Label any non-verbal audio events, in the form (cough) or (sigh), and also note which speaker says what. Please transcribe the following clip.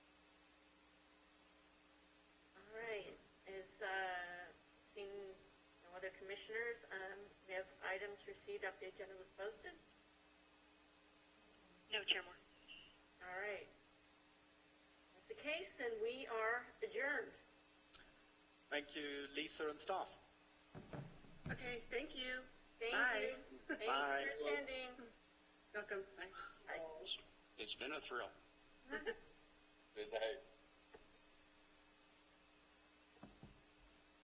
Speaker 1: uh, Commissioners, um, we have items received after the agenda was posted.
Speaker 2: No, Chair Moore.
Speaker 1: All right. That's the case, then we are adjourned.
Speaker 3: Thank you, Lisa and staff.
Speaker 4: Okay, thank you.
Speaker 1: Thank
Speaker 4: Bye. (laughs)
Speaker 1: you. Thank you
Speaker 3: Bye.
Speaker 1: for attending. (laughs)
Speaker 4: Welcome. Bye.
Speaker 5: It's been a thrill.
Speaker 6: Good night.